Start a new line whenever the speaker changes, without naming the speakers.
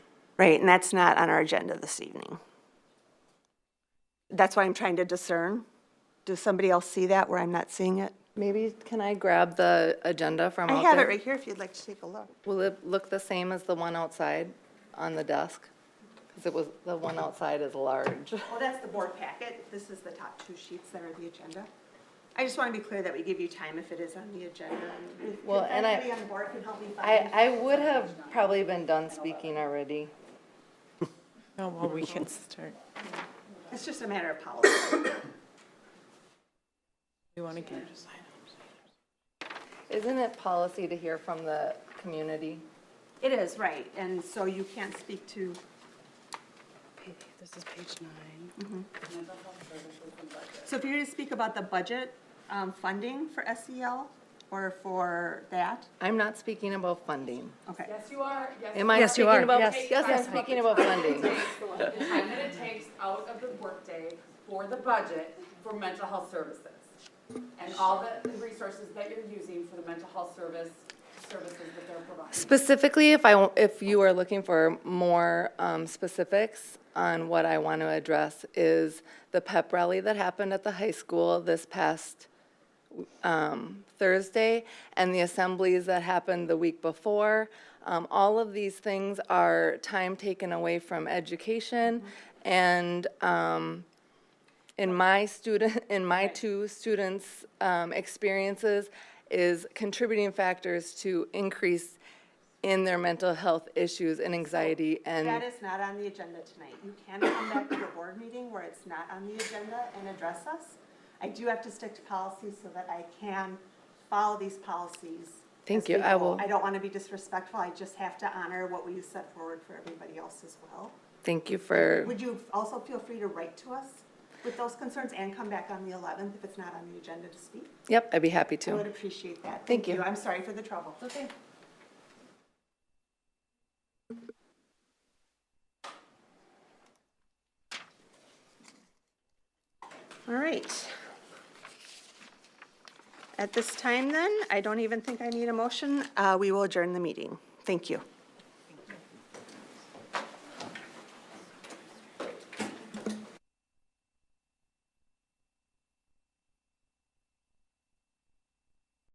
Right, and that's not on our agenda this evening. That's why I'm trying to discern. Does somebody else see that where I'm not seeing it?
Maybe, can I grab the agenda from
I
out
have it
there?
right here if you'd like to take a look.
Will it look the same as the one outside on the desk? Because it was, the one outside is large.
Well, Oh, that's the board packet. This is the top two sheets that are the agenda. I just want to be clear that we give you time if it is on the agenda. and if-
Well,
if
and I-
anybody on the board can help me find
I, I would have probably been done speaking already.
Oh, well, we can start.
It's just a matter of policy.
You want to get,
Isn't it policy to hear from the community?
It is, right, and so you can't speak to,
This is page nine.
so if you're going to speak about the budget um, funding for SEL or for that,
I'm not speaking about funding.
okay.
Yes, you are, yes.
Am I
Yes, you
speaking
are.
about?
Yes.
Yes, I'm speaking about funding.
The time that it takes out of the workday for the budget for mental health services. And all the the resources that you're using for the mental health service, services that they're providing.
Specifically, if I, if you are looking for more um, specifics on what I want to address is the pep rally that happened at the high school this past um, Thursday and the assemblies that happened the week before. Um, All of these things are time taken away from education and um, in my student, in my two students' um, experiences is contributing factors to increase in their mental health issues and anxiety
That
and,
is not on the agenda tonight. You can come back to the board meeting where it's not on the agenda and address us. I do have to stick to policy so that I can follow these policies.
Thank
as
you.
we
I
go.
will-
I don't want to be disrespectful. I just have to honor what we set forward for everybody else as well.
thank you for,
Would you also feel free to write to us with those concerns and come back on the 11th if it's not on the agenda to speak?
yep, I'd be happy
I would
to.
appreciate that.
Thank you.
I'm sorry for the trouble.
Okay.
All right. At this time then, I don't even think I need a motion. Uh, We will adjourn the meeting. Thank you.